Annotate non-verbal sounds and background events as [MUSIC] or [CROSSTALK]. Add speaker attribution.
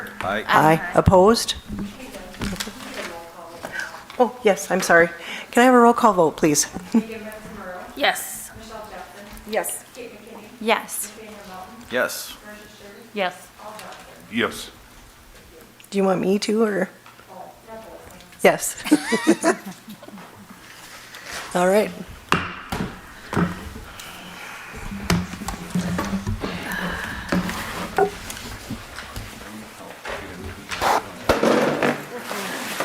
Speaker 1: Aye.
Speaker 2: Aye. Opposed? Oh, yes, I'm sorry. Can I have a roll call vote, please?
Speaker 3: Yes.
Speaker 4: Yes.
Speaker 3: Yes.
Speaker 1: Yes.
Speaker 3: Yes.
Speaker 5: Yes.
Speaker 2: Do you want me to, or? Yes. [LAUGHS] All right,